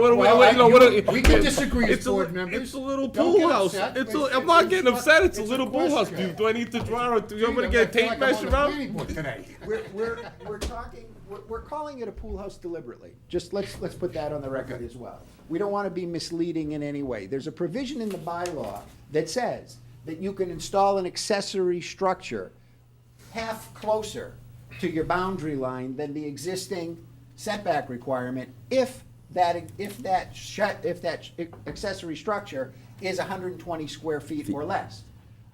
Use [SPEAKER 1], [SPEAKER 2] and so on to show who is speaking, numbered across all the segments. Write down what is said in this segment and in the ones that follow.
[SPEAKER 1] what,
[SPEAKER 2] Well,
[SPEAKER 1] what,
[SPEAKER 2] I-
[SPEAKER 1] you know, what,
[SPEAKER 2] you- we can disagree as
[SPEAKER 1] it's a-
[SPEAKER 2] board members.
[SPEAKER 1] It's a little
[SPEAKER 2] Don't
[SPEAKER 1] pool
[SPEAKER 2] get
[SPEAKER 1] house.
[SPEAKER 2] upset,
[SPEAKER 1] It's
[SPEAKER 2] but
[SPEAKER 1] a,
[SPEAKER 2] it's-
[SPEAKER 1] I'm not
[SPEAKER 2] it's
[SPEAKER 1] getting
[SPEAKER 2] just-
[SPEAKER 1] upset. It's a
[SPEAKER 2] it's a
[SPEAKER 1] little pool house.
[SPEAKER 2] question.
[SPEAKER 1] Do, do I need to draw? it? Do you want me to
[SPEAKER 2] Dude,
[SPEAKER 1] get a
[SPEAKER 2] I feel
[SPEAKER 1] tape
[SPEAKER 2] like I'm on
[SPEAKER 1] measure
[SPEAKER 2] the
[SPEAKER 1] out?
[SPEAKER 2] planning board today.
[SPEAKER 3] We're, we're, we're talking, we're, we're calling it a pool house deliberately. Just let's, let's put that on the record as well. We don't want to be misleading in any way. There's a provision in the bylaw that says that you can install an accessory structure half closer to your boundary line than the existing setback requirement if that, if that shut, if that accessory structure is hundred and twenty square feet or less.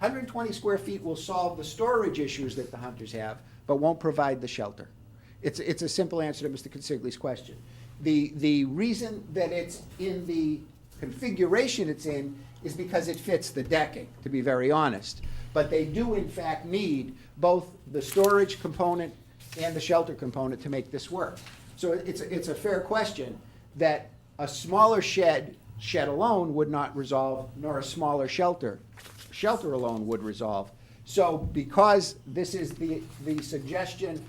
[SPEAKER 3] Hundred and twenty square feet will solve the storage issues that the hunters have, but won't provide the shelter. It's, it's a simple answer to Mr. Consigli's question. The, the reason that it's in the configuration it's in is because it fits the decking, to be very honest. But they do in fact need both the storage component and the shelter component to make this work. So it's, it's a fair question that a smaller shed, shed alone would not resolve, nor a smaller shelter, shelter alone would resolve. So because this is the, the suggestion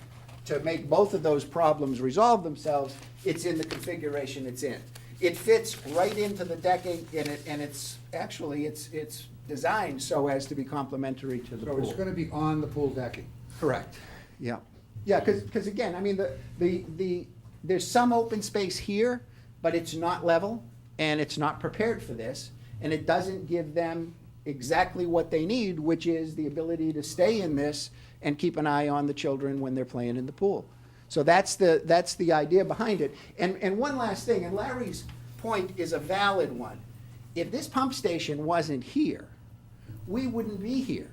[SPEAKER 3] to make both of those problems resolve themselves, it's in the configuration it's in. It fits right into the decking and it, and it's, actually, it's, it's designed so as to be complementary to the
[SPEAKER 2] So it's
[SPEAKER 3] pool.
[SPEAKER 2] gonna be on the pool decking.
[SPEAKER 3] Correct, yeah. Yeah, because, again, I mean, the, the, the, there's some open space here, but it's not level and it's not prepared for this. And it doesn't give them exactly what they need, which is the ability to stay in this and keep an eye on the children when they're playing in the pool. So that's the, that's the idea behind it. And, and one last thing, and Larry's point is a valid one. If this pump station wasn't here, we wouldn't be here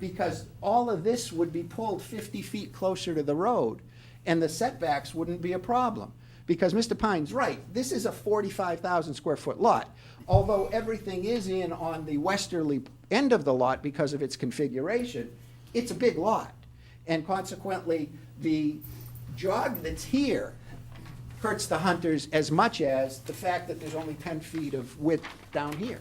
[SPEAKER 3] because all of this would be pulled 50 feet closer to the road and the setbacks wouldn't be a problem. Because Mr. Pine's right, this is a 45,000 square foot lot. Although everything is in on the westerly end of the lot because of its configuration, it's a big lot. And consequently, the jog that's here hurts the hunters as much as the fact that there's only 10 feet of width down here.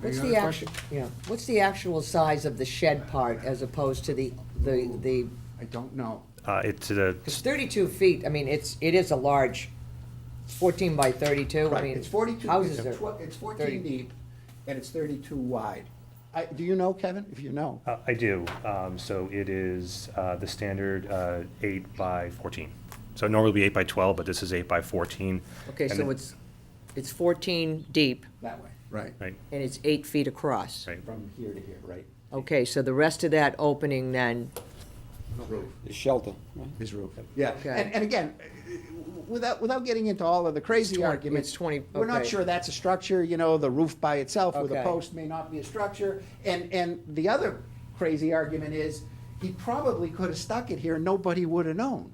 [SPEAKER 4] What's
[SPEAKER 2] Any
[SPEAKER 4] the
[SPEAKER 2] other
[SPEAKER 4] actu-
[SPEAKER 2] question?
[SPEAKER 4] yeah, what's the actual size of the shed part as opposed to the, the, the,
[SPEAKER 3] I don't know.
[SPEAKER 5] Uh, it's uh,
[SPEAKER 4] it's thirty-two feet, I mean, it's, it is a large fourteen by thirty-two, I
[SPEAKER 3] Right,
[SPEAKER 4] mean.
[SPEAKER 3] it's forty-two,
[SPEAKER 4] Houses
[SPEAKER 3] it's
[SPEAKER 4] are,
[SPEAKER 3] tw- it's
[SPEAKER 4] 30.
[SPEAKER 3] fourteen deep, and it's thirty-two wide. I, do you know, Kevin, if you know?
[SPEAKER 5] uh, I do. Um, so it is uh, the standard uh, eight by fourteen. So normally it'd be eight by twelve, but this is eight by fourteen.
[SPEAKER 4] okay,
[SPEAKER 5] And
[SPEAKER 4] so
[SPEAKER 5] it-
[SPEAKER 4] it's, it's fourteen deep
[SPEAKER 3] That way. Right.
[SPEAKER 5] right.
[SPEAKER 4] and it's eight feet across.
[SPEAKER 5] Right.
[SPEAKER 3] From here to here, right?
[SPEAKER 4] Okay, so the rest of that opening then,
[SPEAKER 6] The shelter.
[SPEAKER 3] His roof. Yeah,
[SPEAKER 4] Okay.
[SPEAKER 3] and, and again, without, without getting into all of the crazy
[SPEAKER 4] Twen-
[SPEAKER 3] arguments.
[SPEAKER 4] it's 20
[SPEAKER 3] We're not
[SPEAKER 4] okay.
[SPEAKER 3] sure that's a structure, you know, the roof by itself with a
[SPEAKER 4] Okay.
[SPEAKER 3] post may not be a structure. And, and the other crazy argument is, he probably could have stuck it here, and nobody would have known.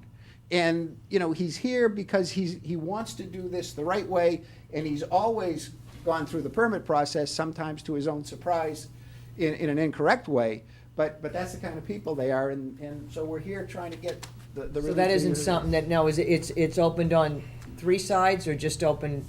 [SPEAKER 3] And, you know, he's here because he's, he wants to do this the right way, and he's always gone through the permit process, sometimes to his own surprise, in, in an incorrect way. But, but that's the kind of people they are, and, and so we're here trying to get the, the
[SPEAKER 4] so
[SPEAKER 3] relief
[SPEAKER 4] that
[SPEAKER 3] we
[SPEAKER 4] isn't
[SPEAKER 3] need.
[SPEAKER 4] something that, now, is it, it's, it's opened on three sides or just open?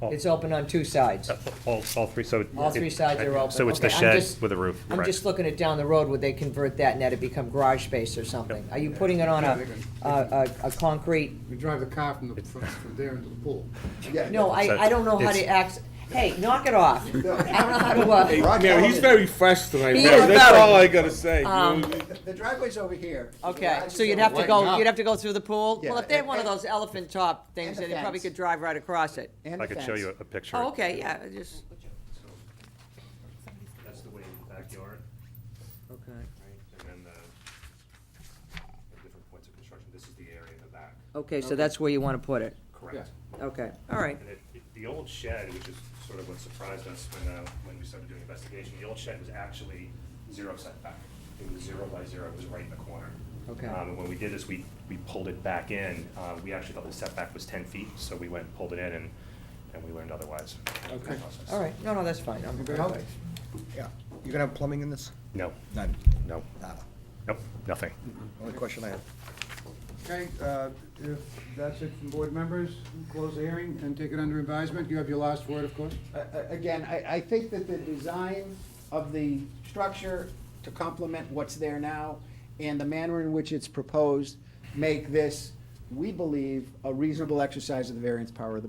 [SPEAKER 5] All-
[SPEAKER 4] It's open on two
[SPEAKER 5] Uh,
[SPEAKER 4] sides?
[SPEAKER 5] All, all three, so. it-
[SPEAKER 4] All three
[SPEAKER 5] it-
[SPEAKER 4] sides are open.
[SPEAKER 5] So it's the
[SPEAKER 4] Okay, I'm
[SPEAKER 5] shed
[SPEAKER 4] just-
[SPEAKER 5] with a roof.
[SPEAKER 4] I'm
[SPEAKER 5] correct.
[SPEAKER 4] just looking at down the road, would they convert that and that it become garage space or something? Are you putting it on
[SPEAKER 2] Yeah,
[SPEAKER 4] a,
[SPEAKER 2] they can-
[SPEAKER 4] a, a- a concrete?
[SPEAKER 2] You drive the car from the, from from there into the pool.
[SPEAKER 3] Yeah.
[SPEAKER 4] No, I, I don't know how to act, hey, knock it off. I don't know how to, uh,
[SPEAKER 3] Rock
[SPEAKER 1] Yeah, he's
[SPEAKER 3] Hudson.
[SPEAKER 1] very fresh tonight.
[SPEAKER 4] He
[SPEAKER 1] man.
[SPEAKER 4] is Um,
[SPEAKER 1] That's
[SPEAKER 4] very-
[SPEAKER 1] all I gotta say.
[SPEAKER 3] The driveway's over here. The
[SPEAKER 4] okay,
[SPEAKER 3] garage
[SPEAKER 4] so
[SPEAKER 3] is
[SPEAKER 4] you'd
[SPEAKER 3] over
[SPEAKER 4] have to
[SPEAKER 3] right
[SPEAKER 4] go,
[SPEAKER 3] now.
[SPEAKER 4] you'd have to go through the pool? Well,
[SPEAKER 3] Yeah.
[SPEAKER 4] if they had one of those elephant top things,
[SPEAKER 3] And the
[SPEAKER 4] then you probably
[SPEAKER 3] fence.
[SPEAKER 4] could drive right across it.
[SPEAKER 3] And
[SPEAKER 5] I
[SPEAKER 3] the
[SPEAKER 5] could show
[SPEAKER 3] fence.
[SPEAKER 5] you a- a picture.
[SPEAKER 4] Oh, okay, yeah, I just.
[SPEAKER 5] That's the way in the backyard,
[SPEAKER 4] Okay.
[SPEAKER 5] right? And then the, the different points of construction. This is the area in the back,
[SPEAKER 4] Okay, so that's where you wanna put it,
[SPEAKER 5] correct?
[SPEAKER 4] okay, all right.
[SPEAKER 5] And it, it- the old shed, which is sort of what surprised us when, uh, when we started doing investigation, the old shed was actually zero setback. It was zero by zero, it was right in the corner.
[SPEAKER 4] Okay.
[SPEAKER 5] Um, and when we did this, we, we pulled it back in, uh, we actually thought the setback was ten feet, so we went and pulled it in and, and we learned otherwise. through the
[SPEAKER 2] Okay.
[SPEAKER 5] process.
[SPEAKER 4] All right, no, no, that's fine, I'm,
[SPEAKER 2] Anybody else?
[SPEAKER 6] Yeah. You gonna have plumbing in this?
[SPEAKER 5] No,
[SPEAKER 6] None.
[SPEAKER 5] no,
[SPEAKER 6] Nada.
[SPEAKER 5] nope, nothing.
[SPEAKER 6] Only question I have.
[SPEAKER 2] Okay, uh, if that's it from board members, close the hearing and take it under advisement. You have your last word, of course.
[SPEAKER 3] A- a- Again, I, I think that the design of the structure to complement what's there now and the manner in which it's proposed make this we believe, a reasonable exercise of the variance power of the